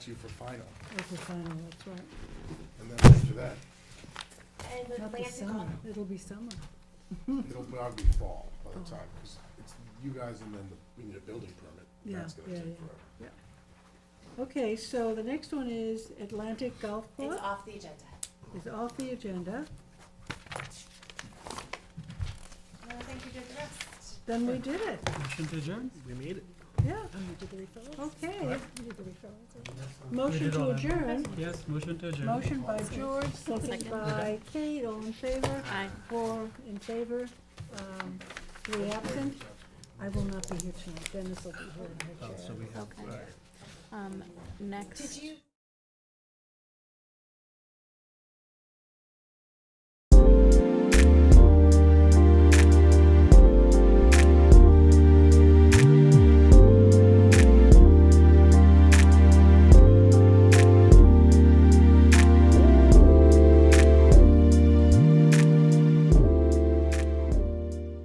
you for final, That's the final, that's right. and then after that, And the Not the Atlantic summer, on, it'll be summer. it'll probably be fall by Oh. the time, because it's you guys and then the- we need a building permit. and That's Yeah, gonna yeah, take yeah. forever. Okay, so the next one is Atlantic Golf it's Club, off the agenda. is off the agenda. Well, I think you did the rest. Then we did it, Motion to adjourn? We made it. yeah, Oh, okay. Motion did to all that. adjourn, Yes, motion to adjourn. motion by George, second Second. by Kate, all in favor? Aye. Four in favor, um, three absent. I will not be here tonight, Dennis will be here in her Oh, chair. So we have. Um, next. Did you?